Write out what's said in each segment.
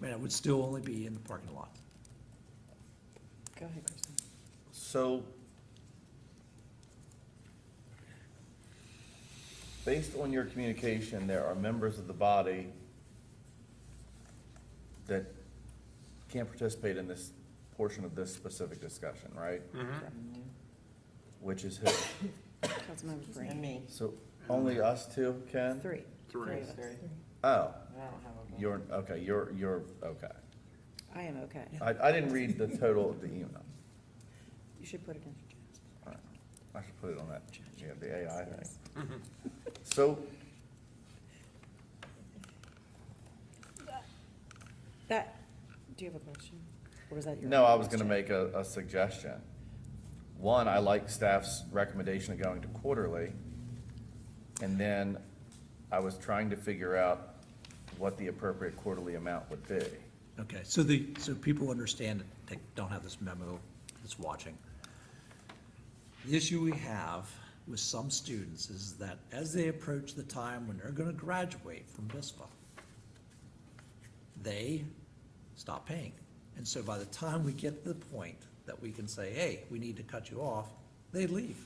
but it would still only be in the parking lot. Go ahead, Kristen. So, based on your communication, there are members of the body that can't participate in this portion of this specific discussion, right? Which is who? Councilmember And Brand. me, So only us two, Ken? Three. three Three. of us. Oh, I don't have a. vote. you're, okay, you're, you're, okay. I am okay. I, I didn't read the total of the email. You should put it in for Jasper. All right. I should put it on that, yeah, the AI thing. So, That, do you have a question? Or was that your? No, only I was gonna question? make a, a suggestion. One, I like staff's recommendation of going to quarterly. And then I was trying to figure out what the appropriate quarterly amount would be. Okay, so the, so people understand, they don't have this memo that's watching. The issue we have with some students is that as they approach the time when they're gonna graduate from VISPA, they stop paying. And so by the time we get to the point that we can say, hey, we need to cut you off, they leave,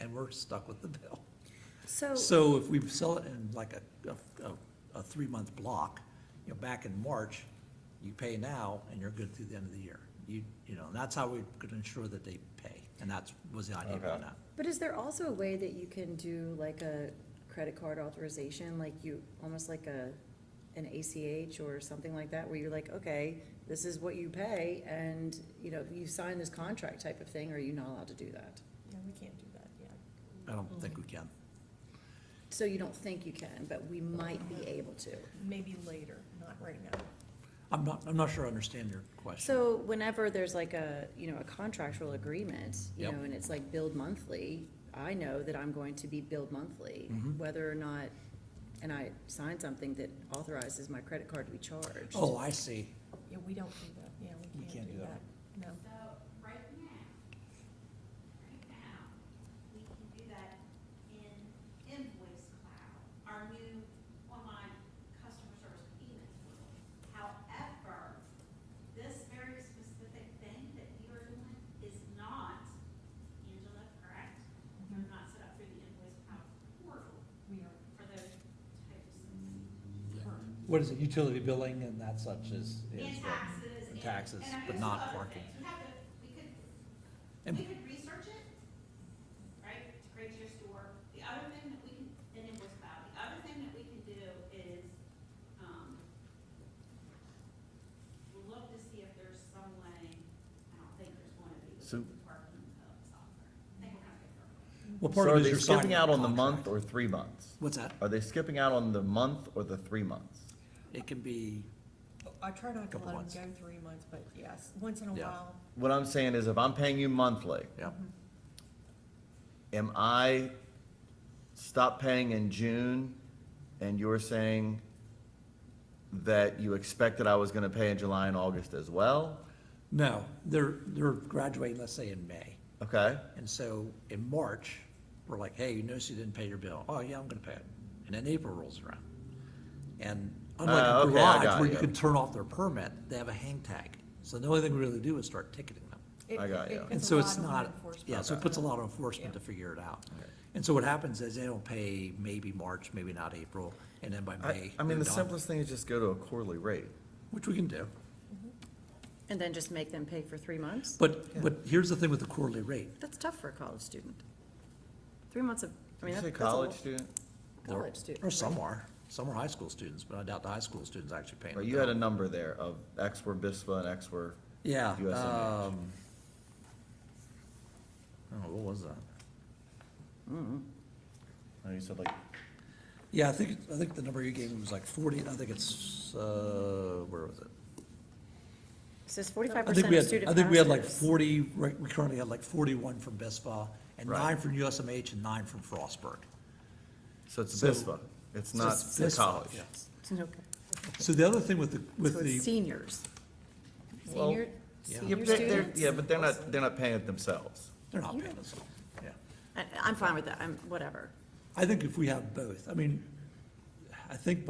and we're stuck with the bill. So, So if we sell it in like a, a, a- a three-month block, you know, back in March, you pay now and you're good through the end of the year. You, you know, and that's how we could ensure that they pay, and that's, was the idea behind Okay. that. But is there also a way that you can do like a credit card authorization, like you, almost like a, an ACH or something like that, where you're like, okay, this is what you pay, and, you know, you sign this contract type of thing, or are you not allowed to do that? Yeah, we can't do that, yeah. I don't think we can. So you don't think you can, but we might be able to. Maybe later, not right now. I'm not, I'm not sure I understand your question. So whenever there's like a, you know, a contractual agreement, you Yep. know, and it's like billed monthly, I know that I'm going to be billed monthly, Mhm. whether or not, and I sign something that authorizes my credit card to be charged. Oh, I see. Yeah, we don't do that, yeah, we can't do that. No, So right now, right now, we can do that in invoice cloud, our new online customer service payment tool. However, this very specific thing that we are doing is not, Angela, correct? You're not set up for the invoice cloud portal we are, for those types of things. What is it, utility billing and that such is? And taxes. And taxes, and I mean, but there's not other parking. things. We have to, we could And- We could research it, right, to create your store. The other thing that we can, and it was about, the other thing that we can do is, um, look to see if there's some way, I don't think there's one of these So- parking of software. I think we're gonna figure it out. Well, part So of are it is they you're signing skipping out on the contract. month or three months? What's that? Are they skipping out on the month or the three months? It can be, I try not to Couple let them months. go three months, but yes, once in a Yeah. while, What I'm saying is if I'm paying you monthly, yeah, am I stop paying in June and you're saying that you expected I was gonna pay in July and August as well? no, they're, they're graduating, let's say in May. Okay? And so in March, we're like, hey, you notice you didn't pay your bill. Oh, yeah, I'm gonna pay it. And then April rolls around. And Ah, unlike a okay, I garage got where you you. can turn off their permit, they have a hang tag. So the only thing we really do is start ticketing them. it, I got you. it And puts a so lot it's on not, enforcement. yeah, so it puts a lot of enforcement to Yeah. figure it out. Okay. And so what happens is they don't pay maybe March, maybe not April, and then by I, May. I mean, they're the done, simplest thing is just go to a quarterly rate. Which we can do. And then just make them pay for three months? But, but here's the thing with the quarterly rate. That's tough for a college student. Three months of, I Did mean, you that- say that's a lot. college student? There- College student, Or some right. are. Some are high school students, but I doubt the high school students actually paying. Well, the you had bill. a number there of X were BISPA and X were, Yeah, USMH. um. Oh, what was that? oh, you said like, Yeah, I think, I think the number you gave me was like forty, I think it's, uh, where was it? It says forty-five I think percent we of had, student I think we had like passes. forty, right, we currently had like forty-one from BISPA, and Right. nine from USMH and nine from Frostburg. so it's So- BISPA, it's not Just the BISPA, college. yeah. Okay. So the other thing with the, So with it's the, seniors. Well, Senior, Yeah. Yeah, senior but they're- students? Yeah, but they're not, they're not paying it themselves. they're not You paying don't- us, yeah. I, I'm fine with that, I'm, whatever. I think if we have both, I mean, I think